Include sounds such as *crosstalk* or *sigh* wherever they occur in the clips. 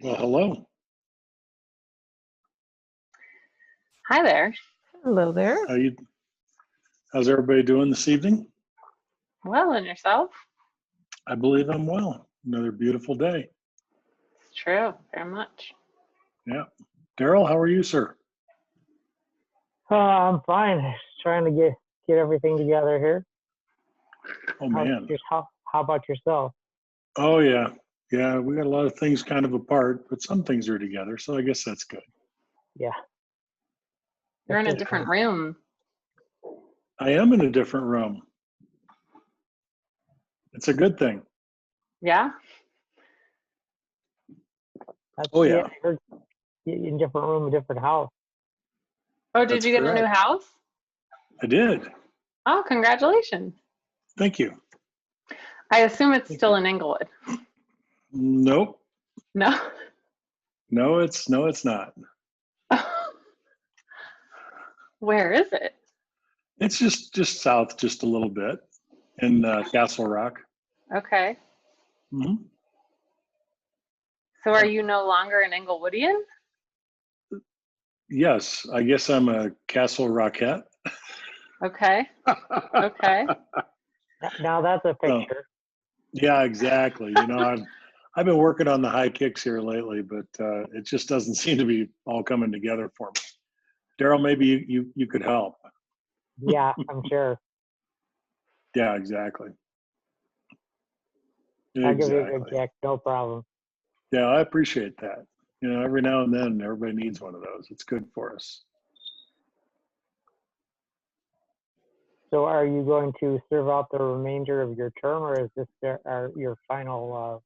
Well, hello. Hi there. Hello there. How you? How's everybody doing this evening? Well, and yourself? I believe I'm well. Another beautiful day. It's true, very much. Daryl, how are you, sir? Uh, I'm fine. Just trying to get get everything together here. Oh How, man. just how, how about yourself? Oh yeah, yeah. We got a lot of things kind of apart, but some things are together. So I guess that's good. You're in a That's it. different room. I am in a different room. It's a good thing. Yeah? That's Oh, it. yeah. You're- you're In different room, a different house. Oh, did That's you get a new correct. house? I did. Oh, congratulations. Thank you. I assume it's still in Englewood. Nope. No? *laughs* No, it's no, it's not. Where is it? It's just just south, just a little bit, in uh, Castle Rock. Okay. hmm Mm-hmm. So are you no longer an Englewoodian? Yes, I guess I'm a Castle Rockette. Okay. Okay. Th- Now that's a Well, picture. *laughs* Yeah, exactly. You know, I've I've been working on the high kicks here lately, but uh, it just doesn't *laughs* seem to be all coming together for me. Daryl, maybe you, you you could help. Yeah, I'm *laughs* sure. Yeah, exactly. I'll give you a good Exactly. check. No problem. Yeah, I appreciate that. You know, every now and then everybody needs one of those. It's good for us. So, are you going to serve out the remainder of your term, or is this their, are your final?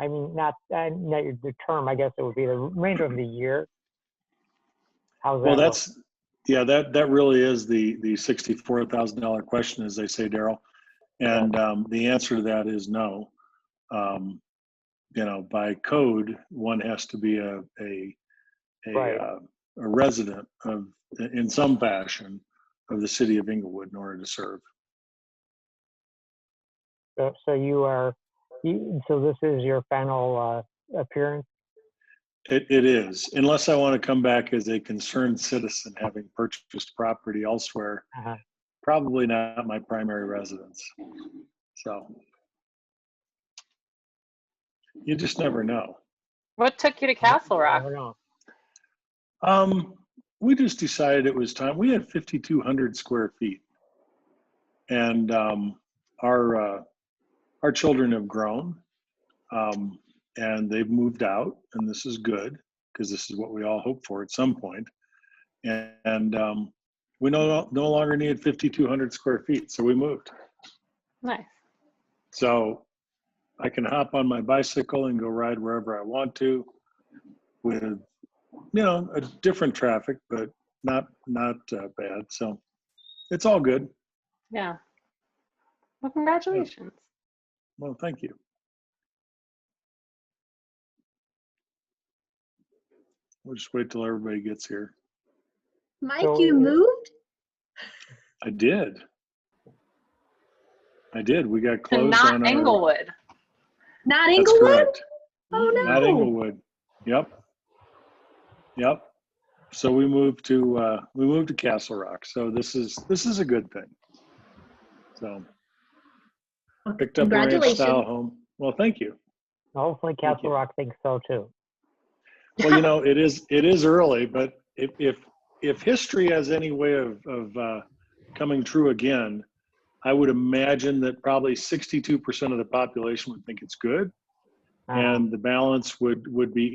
Uh, I mean, not uh, not your the term. I guess it would be the remainder of the year. How's that? Well, look? that's yeah. That that really is the the sixty four thousand dollar question, as they say, Daryl. And um, the answer to that is no. Um, you know, by code, one has to be a a a, Right. uh, a resident of in some fashion of the city of Inglewood in order to serve. So, so you are, you, so this is your final uh, appearance? It, it is, unless I want to come back as a concerned citizen, having purchased property elsewhere. Uh-huh. Probably not my primary residence. So you just never know. What took you to Castle I Rock? don't know. Um, we just decided it was time. We had 5,200 square feet, and um, our uh, our children have grown, um, and they've moved out, and this is good because this is what we all hope for at some point. And, and um, we no no longer needed 5,200 square feet, so we moved. Nice. So I can hop on my bicycle and go ride wherever I want to with, you know, a different traffic, but not, not uh, bad. So it's all good. Yeah. Well, congratulations. Well, thank you. We'll just wait till everybody gets here. Mike, So- you moved? I did. I did. We got To closed not on our- Englewood. Not That's Inglewood? correct. Oh, Not no. Inglewood. Yep. Yep. So we moved to, uh, we moved to Castle Rock. So this is, this is a good thing. So. Picked up a ranch Congratulations. style home. Well, thank you. Hopefully Thank Castle you. Rock thinks so too. Well, you know, it is, it is early, but if, if, if history has any way of, of, uh, coming true again, I would imagine that probably sixty-two percent of the population would think it's good Um, and the balance would, would be